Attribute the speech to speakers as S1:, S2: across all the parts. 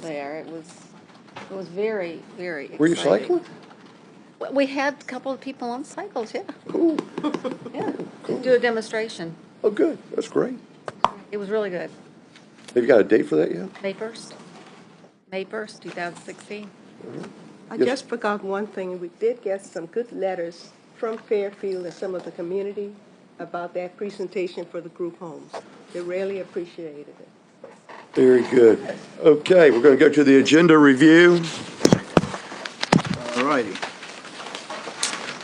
S1: there. It was, it was very, very exciting.
S2: Were you cycling?
S1: W- We had a couple of people on cycles, yeah,
S2: Cool.
S1: yeah. Do a demonstration.
S2: Oh, good. That's great.
S1: It was really good.
S2: Have you got a date for that yet?
S1: May 1st, May 1st, 2016.
S3: I
S2: Yes.
S3: just forgot one thing. We did get some good letters from Fairfield and some of the community about that presentation for the group homes. They really appreciated it.
S2: Very good. Okay, we're going to go to the agenda review.
S4: All righty.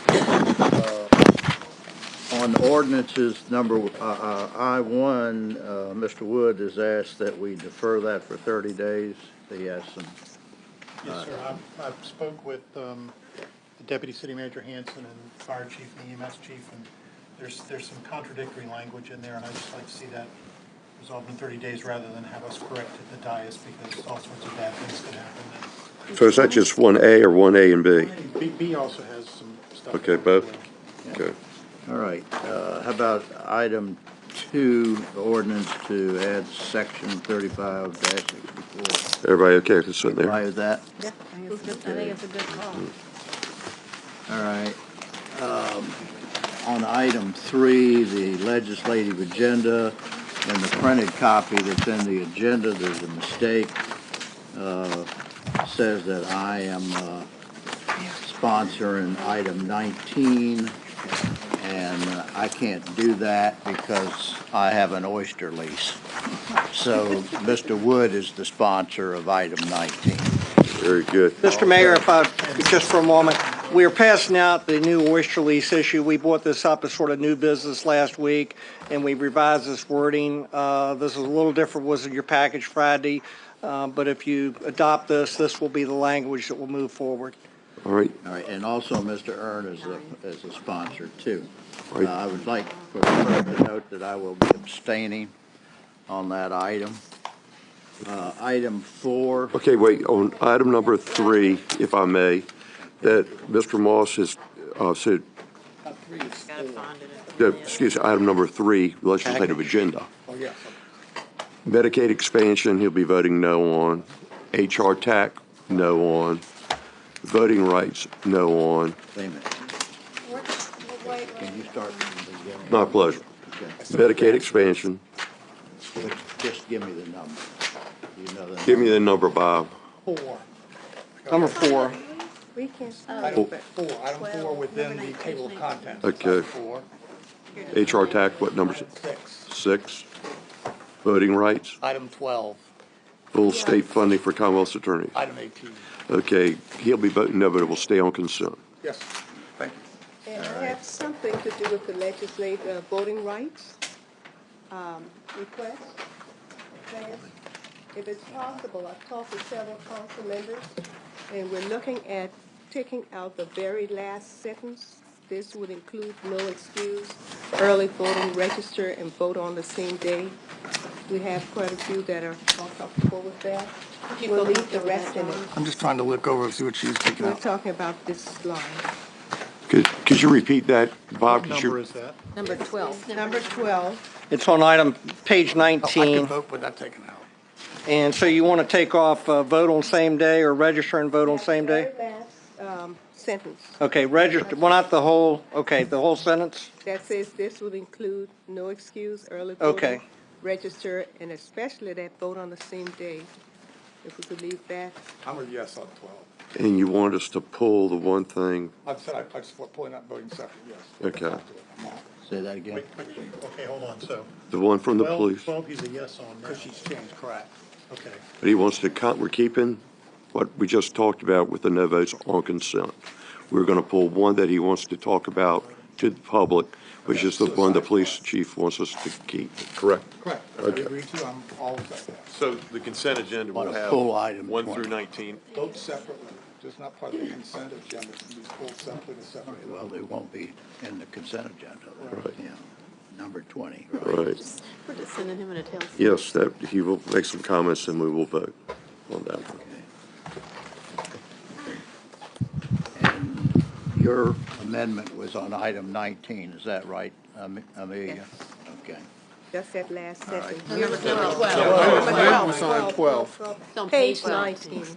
S4: Uh, On ordinances number, uh, uh, I-1, uh, Mr. Wood has asked that we defer that for 30 days. He has some,
S5: Yes, sir. I, I spoke with, um, the deputy city manager Hanson and fire chief and EMS chief, and there's, there's some contradictory language in there, and I'd just like to see that resolved in thirty days rather than have us correct at the dais, because all sorts of bad things could happen.
S2: So is that just one A or one A and B?
S5: And B, B also has some stuff.
S2: Okay, both? Okay.
S4: all right. Uh, How about item 2, the ordinance to add section 35-64?
S2: Everybody okay with sitting there?
S4: Why is that?
S1: Yeah. I think it's a good- I think it's a good call.
S4: All right. Um, On item three, the legislative agenda, and the printed copy that's in the agenda, there's a mistake. uh, Says that I am uh, sponsoring item 19, and uh, I can't do that because I have an oyster lease. So Mr. Wood is the sponsor of item 19.
S2: Very good.
S6: Mr. Mayor, if I, just for a moment, we are passing out the new oyster lease issue. We brought this up as sort of new business last week, and we revised this wording. Uh, This is a little different, was in your package Friday, uh, but if you adopt this, this will be the language that will move forward.
S2: All right,
S4: All right, and also Mr. Earn is a, is a sponsor too. Uh,
S2: Right.
S4: I would like for the clerk to note that I will be abstaining on that item. Uh, item four,
S2: okay, wait, on item number three, if I may, that Mr. Moss has, uh, said, uh, excuse, me, item number three, legislative agenda.
S6: Oh, yes.
S2: Medicaid expansion, he'll be voting no on. HR TAC, no on. Voting rights, no on.
S4: wait a minute, can you start from the beginning?
S2: My pleasure.
S4: Okay.
S2: Medicaid expansion,
S4: But Just give me the number. You know the
S2: give me the number, Bob.
S5: Four,
S6: Number four.
S3: We can,
S1: Oh,
S5: item four, item four within the table of contents.
S2: Okay.
S5: Four,
S2: HR TAC, what number is it?
S5: six,
S2: Six. Voting rights,
S5: item twelve,
S2: full state funding for Commonwealth's attorney.
S5: item eighteen.
S2: Okay, he'll be voting no, but it will stay on consent.
S5: Yes, thank you.
S3: and it has something to do with the legislative uh, voting rights um, request. Mayor, If it's possible, I've talked to several council members, and we're looking at taking out the very last sentence. This would include no excuse, early voting, register and vote on the same day. We have quite a few that are uncomfortable with that. We'll leave the rest in it.
S5: I'm just trying to look over, and see what she's picking
S3: We're talking about this line.
S2: Could, could you repeat that, Bob?
S5: What
S2: Could
S5: number
S2: you-
S5: is that?
S1: Number 12.
S3: Number 12.
S6: It's on item, page
S5: Oh, I could
S6: 19.
S5: vote with that taken out.
S6: And so you want to take off uh, vote on same day or register and vote on same day?
S3: Very last, um, Sentence
S6: Okay, register, well, not the whole, okay, the whole sentence?
S3: that says this would include no excuse, early
S6: Okay.
S3: voting, register, and especially that vote on the same day. If we could leave that,
S5: I'm a yes on twelve.
S2: And you want us to pull the one thing?
S5: I've said, I- I just want pulling out voting separate, yes.
S2: Okay.
S4: Say that again.
S5: Wait, wait, okay, hold on, so.
S2: The one from the
S5: 12
S2: police?
S5: Twelve, he's a yes on now. Because she's changed, correct. Okay,
S2: But he wants to, con- we're keeping what we just talked about with the no votes on consent. We're going to pull one that he wants to talk about to the public, which is the one the police chief wants us to keep, correct?
S5: correct. I
S2: Okay.
S5: agree to, I'm all with that.
S7: So the consent agenda will
S4: On a
S7: have
S4: full item,
S7: one
S4: point.
S7: through 19.
S5: Vote separately, just not part of the consent agenda, it can be pulled separately to separate.
S4: Well, they won't be in the consent agenda.
S2: Right.
S4: Yeah, number 20.
S2: Right.
S8: We're just sending him in a tail.
S2: Yes, that, he will make some comments and we will vote on that one.
S4: And Your amendment was on item 19, is that right, Am- Amelia? Okay.
S3: That's that last sentence.
S9: Number twelve.
S3: Number 12,
S8: on 12.
S3: Page 19.